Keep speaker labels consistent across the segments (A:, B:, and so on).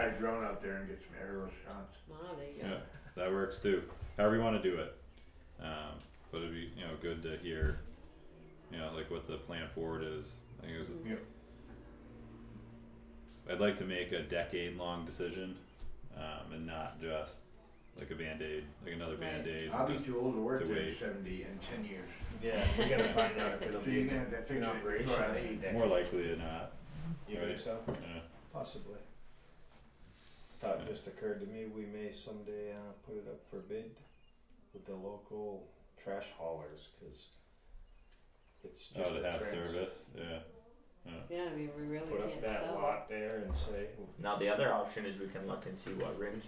A: Fly a drone out there and get some aerial shots.
B: Wow, there you go.
C: Yeah, that works too. However you want to do it. Um, but it'd be you know good to hear, you know, like what the plan forward is. I think it was,
A: Yep.
C: I'd like to make a decade long decision, um, and not just like a band aid, like another
B: Right.
C: band aid.
A: I'll be too old to work
C: to
A: there
C: wait.
A: seventy in ten years.
D: Yeah, we gotta find out if it'll
A: So
D: be
A: you're gonna
D: an
A: have to fix it
D: operation.
A: before I leave.
C: More likely than not.
D: You think so?
C: Yeah.
D: Possibly. Thought just occurred to me, we may someday uh, put it up for bid with the local trash haulers, cause it's
C: Oh,
D: just a
C: to have
D: trans-
C: service. Yeah.
B: Yeah, I mean, we really
D: Put
B: can't
D: up that
B: sell.
D: lot there and say,
E: Now the other option is we can look and see what Ringe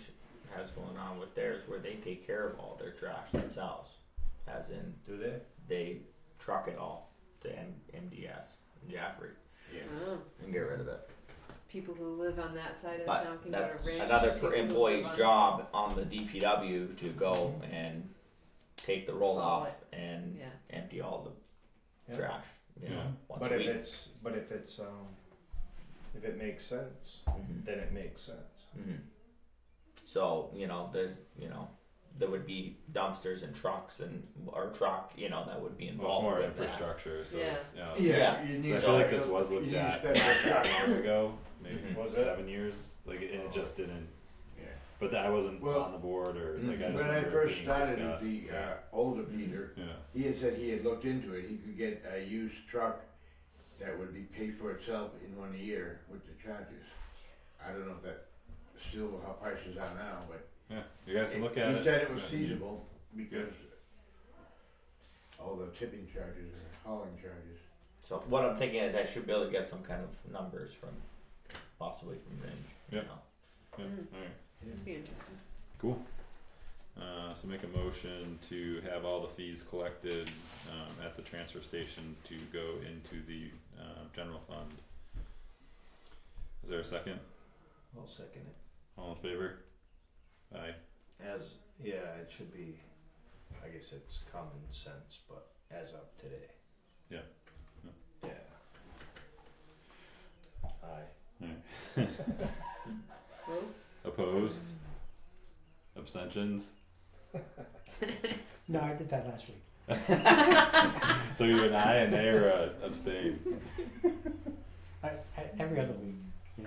E: has going on with theirs, where they take care of all their trash themselves, as in
D: do they?
E: they truck it all to M- MDS Jaffrey
A: Yeah.
B: Oh,
E: and get rid of it.
B: people who live on that side of the
E: But
B: town can
E: that's
B: go to Ridge.
E: another
B: people who
E: per-
B: live
E: employee's
B: on-
E: job on the DPW to go and take the roll
B: Haul
E: off and
B: Yeah.
E: empty all the
D: Yeah.
E: trash. You know,
C: Yeah.
E: once
D: But
E: a
D: if
E: week.
D: it's, but if it's, um, if it makes sense,
E: Mhm.
D: then it makes sense.
C: Mm-hmm.
E: hmm So you know, there's you know, there would be dumpsters and trucks and or truck, you know, that would be
C: Well, it's
E: involved
C: more
E: with that.
C: infrastructure. So
B: Yeah.
C: you know,
E: Yeah.
A: You
C: I
A: need
C: feel like
A: special-
C: this was
A: you
C: looked
A: need
C: at
A: special
C: a
A: shots.
C: year ago, maybe
E: Mhm.
D: Was it?
C: seven years. Like it, it just didn't.
A: Oh. Yeah.
C: But that I wasn't
A: Well, mm-hmm.
C: on the board or like I
E: mhm.
C: just
A: When I
C: remember it
A: first
C: being
A: started at
C: discussed.
A: the
C: yeah.
A: uh, older Peter,
C: yeah.
A: he had said he had looked into it. He could get a used truck that would be paid for itself in one year with the charges. I don't know if that still how prices are now, but
C: Yeah. You guys can look at
A: he
C: it.
A: said it was
C: Yeah.
A: feasible because all the tipping charges and hauling charges.
E: So what I'm thinking is I should be able to get some kind of numbers from possibly from Ringe.
C: Yep.
E: You know.
C: Yeah.
B: Mm.
C: All right.
B: It'd be interesting.
C: Cool. Uh, so make a motion to have all the fees collected um, at the transfer station to go into the uh, general fund. Is there a second?
D: I'll second it.
C: All in favor? Aye.
D: As, yeah, it should be, I guess it's common sense, but as of today.
C: Yeah. Yeah.
D: Yeah. Aye.
B: Well,
C: Opposed? Abstentions?
F: No, I did that last week.
C: So you're an aye and they uh, are a abstain.
F: I, I, every other week.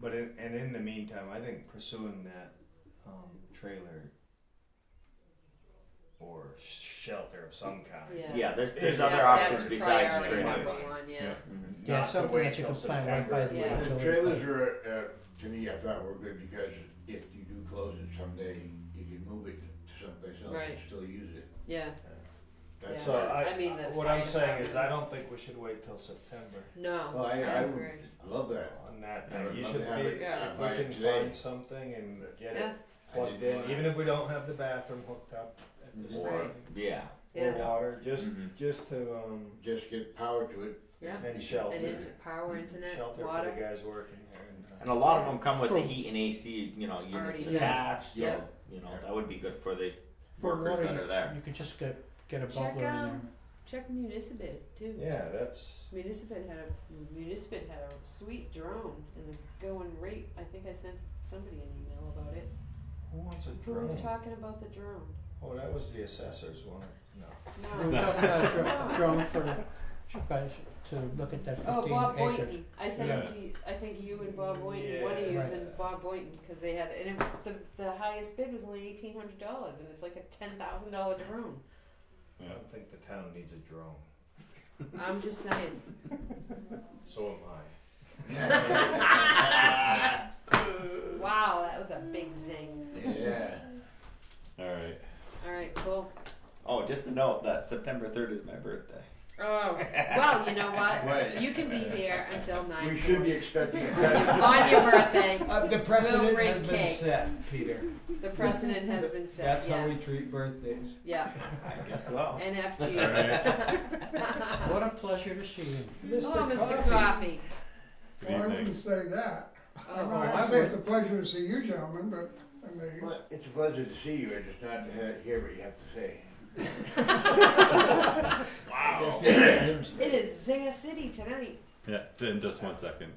D: But in, and in the meantime, I think pursuing that um, trailer or shelter of some kind.
B: Yeah.
E: Yeah, there's there's
B: yeah,
E: other
B: that's
E: options besides
B: priority
D: training.
B: number
E: trailers.
D: Yeah.
B: one. Yeah.
C: Yeah.
E: Mhm.
F: Yeah,
D: Not to
F: something
D: wait
F: that you
D: till
F: can find right by the.
B: Yeah.
A: The
F: actual-
A: trailers are, uh, to me, I thought were good because if you do close it someday, you can move it to someplace else and
B: Right.
A: still use it.
B: Yeah.
A: That's
B: Yeah.
D: So I,
B: I mean, the
D: what I'm
B: fire
D: saying is, I
B: department-
D: don't think we should wait till September
B: No.
A: Well, I, I would
B: agree.
A: love that.
D: on that.
A: I would
D: you
A: love
D: should
A: to have it,
D: wait.
B: Yeah.
D: If
A: buy
D: we
A: it
D: can
A: today.
D: find something and get
B: Yeah.
D: it
A: I
D: plugged
A: didn't
D: in,
A: wanna-
D: even if we don't have the bathroom hooked up at this
A: Or-
D: thing,
E: Yeah.
D: or
B: Yeah.
D: water, just
A: Mm-hmm.
E: Mhm.
D: just to um,
A: Just get power to it.
B: Yeah.
D: and shelter,
B: And into power, internet,
D: shelter
B: water.
D: for the guys working there. And, uh,
E: And a lot of them come with the
F: For-
E: heat and AC, you know,
B: Already
E: units
F: done.
E: attached. So
B: Yeah.
E: you know
A: Yeah.
E: that would be good for the
F: For
E: workers that
F: water,
E: are there.
F: You could just get, get a
B: Check
F: bubbler in there.
B: out- Check Municipid too.
D: Yeah, that's
B: Municipid had a Municipid had a sweet drone and the going rate. I think I sent somebody an email about it.
D: who wants a
B: Who
D: drone?
B: was talking about the drone?
D: Oh, that was the assessor's one. No.
F: We were
B: No.
F: talking about a dro- drone for the, by- to look at that
B: Oh,
F: fifteen
B: Bob
F: acres.
B: Boynton. I sent it
C: Yeah.
B: to you, I think you and Bob Boynton, one of you
F: Yeah.
B: and Bob Boynton, because they had, and it, the, the highest bid was only eighteen hundred dollars, and it's like a ten thousand dollar drone.
D: I don't think the town needs a drone.
B: I'm just saying.
D: So am I.
B: Wow, that was a big zing.
A: Yeah.
C: Alright.
B: All right, cool.
E: Oh, just a note that September third is my birthday.
B: Oh, well, you know
A: Right.
B: what? You can be here until nine.
A: We should be expecting a present.
B: On your birthday,
D: Uh, the
B: precedent We'll has bring been cake.
D: set, Peter.
B: the precedent has been set. yeah.
D: treat birthdays.
B: Yeah,
E: I guess so.
B: NFG.
F: What a pleasure to see you.
B: oh, Mr. Coffee.
C: Good
G: Well, I
C: evening.
G: wouldn't say that. I
B: Oh,
G: mean, I say it's a pleasure to see you gentlemen, but, I mean,
A: Well, It's a pleasure to see you, and it's not to hear what you have to say.
D: Wow.
B: it is Zinga City tonight.
C: Yeah, in just one second.